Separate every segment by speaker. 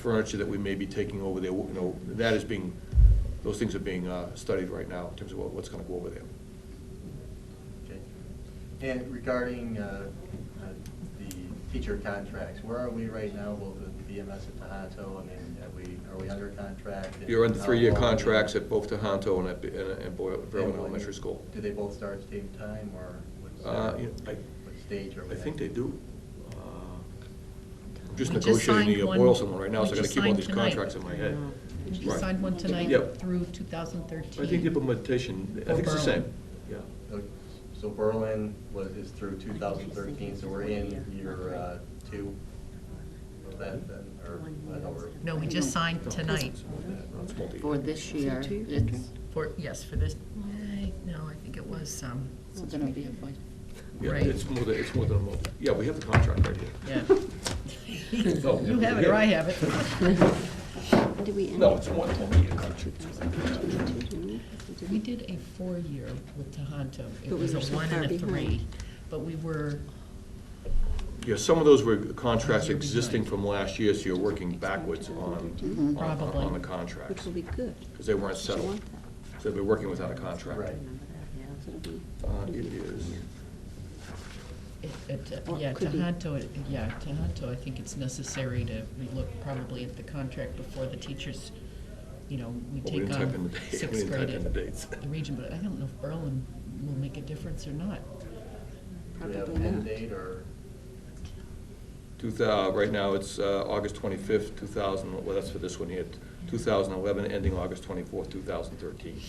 Speaker 1: furniture that we may be taking over there, you know, that is being, those things are being uh, studied right now in terms of what- what's gonna go over there.
Speaker 2: Okay. And regarding uh, uh, the teacher contracts, where are we right now with the BMS at Tohoto? I mean, are we, are we under contract? and
Speaker 1: You're under three-year
Speaker 2: how long-
Speaker 1: contracts at both Tohoto and at, B- and and Boy-
Speaker 2: and
Speaker 1: Berlin
Speaker 2: when-
Speaker 1: Elementary School.
Speaker 2: Do they both start at the same time, or what's,
Speaker 1: Uh,
Speaker 2: uh,
Speaker 1: you know, I-
Speaker 2: what stage are we
Speaker 1: I
Speaker 2: at?
Speaker 1: think they do. Uh, I'm just
Speaker 3: We just
Speaker 1: negotiating
Speaker 3: signed
Speaker 1: the
Speaker 3: one-
Speaker 1: Boylston one right now, so I
Speaker 3: we
Speaker 1: gotta
Speaker 3: just
Speaker 1: keep all
Speaker 3: signed
Speaker 1: these
Speaker 3: tonight.
Speaker 1: contracts in my head.
Speaker 3: We
Speaker 1: Right.
Speaker 3: just signed one
Speaker 1: Yep.
Speaker 3: tonight through
Speaker 1: I think the
Speaker 3: 2013.
Speaker 1: implementation, I
Speaker 3: For
Speaker 1: think it's the
Speaker 3: Berlin.
Speaker 1: same, yeah.
Speaker 2: Uh, So Berlin was, is through 2013, so we're in year uh, two of that, then, or, I know we're.
Speaker 3: No, we just signed tonight
Speaker 1: No, it's multi-
Speaker 4: For this year,
Speaker 5: two year
Speaker 4: it's,
Speaker 3: for, yes, for this, I- no, I think it was, um,
Speaker 4: it's gonna be a fight.
Speaker 1: Yeah,
Speaker 3: right.
Speaker 1: it's more than, it's more than a multi, yeah, we have the contract right here. Oh,
Speaker 3: yeah.
Speaker 1: No,
Speaker 3: You have it or I have it.
Speaker 5: Did we end?
Speaker 1: No, it's more than a multi-year contract.
Speaker 3: We did a four-year with Tohoto. It
Speaker 5: But we
Speaker 3: was a
Speaker 5: were so
Speaker 3: one
Speaker 5: far
Speaker 3: and a three,
Speaker 5: behind.
Speaker 3: but we were,
Speaker 1: Yeah, some of those were contracts
Speaker 3: You're
Speaker 1: existing
Speaker 3: behind.
Speaker 1: from last year, so you're working backwards on, on-
Speaker 3: Probably.
Speaker 1: on the
Speaker 5: Which
Speaker 1: contracts,
Speaker 5: will be good.
Speaker 1: because they weren't
Speaker 5: You
Speaker 1: settled.
Speaker 5: want that.
Speaker 1: So they've been working without a contract.
Speaker 2: Right.
Speaker 5: Remember that, yeah, so it'll be-
Speaker 1: Uh, it is,
Speaker 3: it- it, uh,
Speaker 5: Or it
Speaker 3: yeah,
Speaker 5: could be.
Speaker 3: Tohoto, it- yeah, Tohoto, I think it's necessary to relook probably at the contract before the teachers, you know, we
Speaker 1: well, we
Speaker 3: take
Speaker 1: didn't type in
Speaker 3: on
Speaker 1: the dates. We
Speaker 3: sixth
Speaker 1: didn't type in the
Speaker 3: grade at
Speaker 1: dates.
Speaker 3: the region, but I don't know if Berlin will make a difference or not.
Speaker 2: Do we have
Speaker 5: Probably
Speaker 2: an end
Speaker 5: not.
Speaker 2: date, or?
Speaker 1: Two thou, right now, it's uh, August twenty-fifth, two thousand, well, that's for this one here, two thousand eleven, ending August twenty-fourth, two thousand thirteen.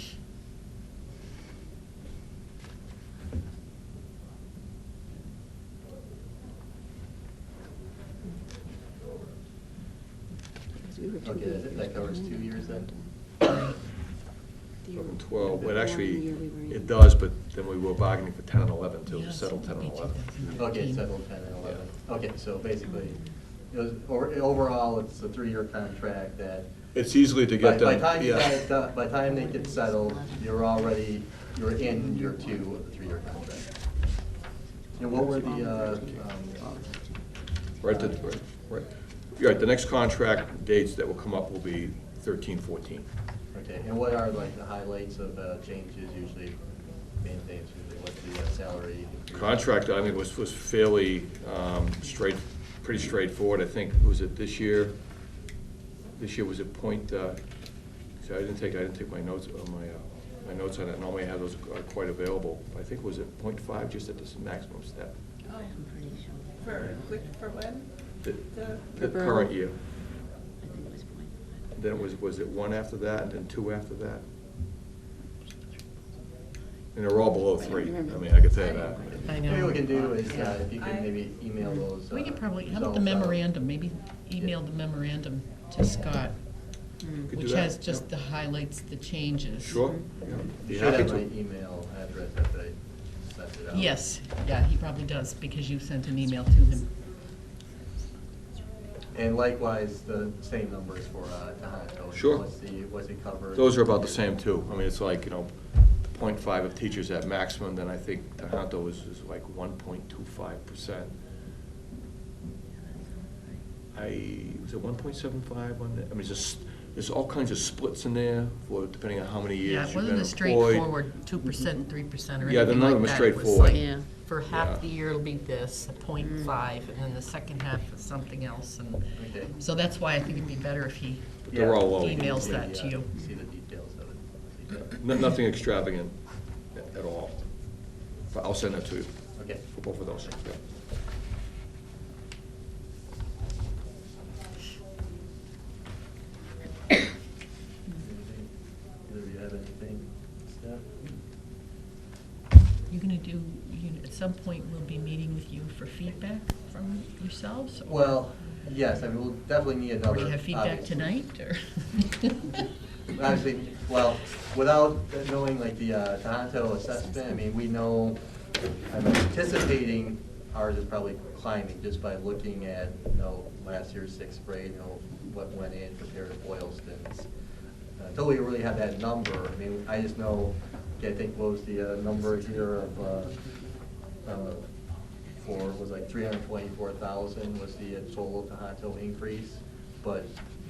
Speaker 5: Because we were two Mm-hmm.
Speaker 2: Okay,
Speaker 5: years
Speaker 2: that- that covers two
Speaker 5: behind
Speaker 2: years then?
Speaker 5: on that.
Speaker 1: Eleven,
Speaker 5: The
Speaker 1: twelve, well,
Speaker 5: one
Speaker 1: actually,
Speaker 5: year we were in.
Speaker 1: it does, but then we were bargaining for ten and eleven, to
Speaker 3: Yeah,
Speaker 1: settle
Speaker 3: so
Speaker 1: ten and
Speaker 3: maybe
Speaker 1: eleven.
Speaker 3: 2013.
Speaker 2: Okay, settle ten and eleven. Okay, so basically, it was, or- overall, it's a three-year contract that.
Speaker 1: It's easily to
Speaker 2: By
Speaker 1: get
Speaker 2: by
Speaker 1: them,
Speaker 2: time you
Speaker 1: yeah.
Speaker 2: guys, do- by time they get settled, you're already, you're in year two of the three-year contract. And what were the, uh, um,
Speaker 1: Right, the- right, right. You're right, the next contract dates that will come up will be thirteen, fourteen.
Speaker 2: okay, and what are like the highlights of uh, changes usually, main things, usually what's the uh, salary? increase?
Speaker 1: Contract, I mean, was, was fairly um, straight, pretty straightforward, I think, was it this year? This year was a point, uh, see, I didn't take, I didn't take my notes, uh, my, uh, my notes on it, normally I have those uh, quite available. I think was it point five, just at this maximum step,
Speaker 6: Oh, For, which- for when?
Speaker 1: the,
Speaker 6: The-
Speaker 1: the
Speaker 5: The Berlin.
Speaker 1: current year.
Speaker 5: I think it was point five.
Speaker 1: Then it was, was it one after that, and then two after that? And they're all below three, I mean, I could tell you that.
Speaker 3: I know.
Speaker 2: Maybe
Speaker 5: Hmm.
Speaker 2: what we can do is, uh,
Speaker 3: Yeah. Mm-hmm.
Speaker 2: if you can maybe email those.
Speaker 3: We
Speaker 2: uh,
Speaker 3: could probably, how about the
Speaker 2: results out.
Speaker 3: memorandum, maybe email the memorandum to Scott,
Speaker 1: Could do
Speaker 3: which
Speaker 1: that,
Speaker 3: has
Speaker 1: yeah.
Speaker 3: just the highlights, the changes.
Speaker 1: Sure?
Speaker 2: You
Speaker 1: Be
Speaker 2: should
Speaker 1: happy
Speaker 2: have my
Speaker 1: to.
Speaker 2: email address if they sent
Speaker 5: Mm-hmm.
Speaker 2: it out.
Speaker 3: Yes, yeah, he probably does, because you sent an email to him.
Speaker 2: And likewise, the same numbers for uh, Tohoto.
Speaker 1: Sure.
Speaker 2: What's the, what's it covered?
Speaker 1: Those are about the same too. I mean, it's like, you know, point five of teachers at maximum, then I think Tohoto is, is like one point two five percent. I, was it one point seven five on that? I mean, it's just, there's all kinds of splits in there for, depending on how many
Speaker 3: Yeah,
Speaker 1: years
Speaker 3: it
Speaker 1: you've been
Speaker 3: wasn't a
Speaker 1: employed.
Speaker 3: straightforward two percent, three percent, or
Speaker 1: Yeah, the
Speaker 3: anything
Speaker 1: none
Speaker 3: like
Speaker 1: of them
Speaker 3: that.
Speaker 1: are
Speaker 3: It was
Speaker 1: straightforward.
Speaker 3: like,
Speaker 4: Yeah.
Speaker 3: For
Speaker 1: Yeah.
Speaker 3: half the year, it'll be this, a point
Speaker 2: Mm.
Speaker 3: five, and then the second half is something else, and,
Speaker 2: Okay.
Speaker 3: so that's why I think it'd be better if he,
Speaker 1: But They're all low.
Speaker 3: Emails
Speaker 2: Yeah,
Speaker 3: that to
Speaker 2: yeah,
Speaker 3: you.
Speaker 2: uh, See the details of it.
Speaker 1: No- Nothing extravagant a- at all. But I'll send that to you,
Speaker 2: Okay.
Speaker 1: for both of those, yeah.
Speaker 2: Either of you have anything? Steph?
Speaker 3: you're gonna do, you, at some point, we'll be meeting with you for feedback from yourselves? or-
Speaker 2: Well, yes, I mean, we'll definitely need another.
Speaker 3: Or do you have feedback
Speaker 2: obviously.
Speaker 3: tonight, or?
Speaker 2: Obviously, well, without knowing like the uh, Tohoto assessment, I mean, we know, I'm anticipating ours is probably climbing just by looking at, you know, last year's sixth grade, you know, what went in compared to Boylston's. Uh, Until we really have that number, I mean, I just know, I think what was the uh, number here of, uh, uh, for, was like three hundred twenty-four thousand was the uh, total Tohoto increase. But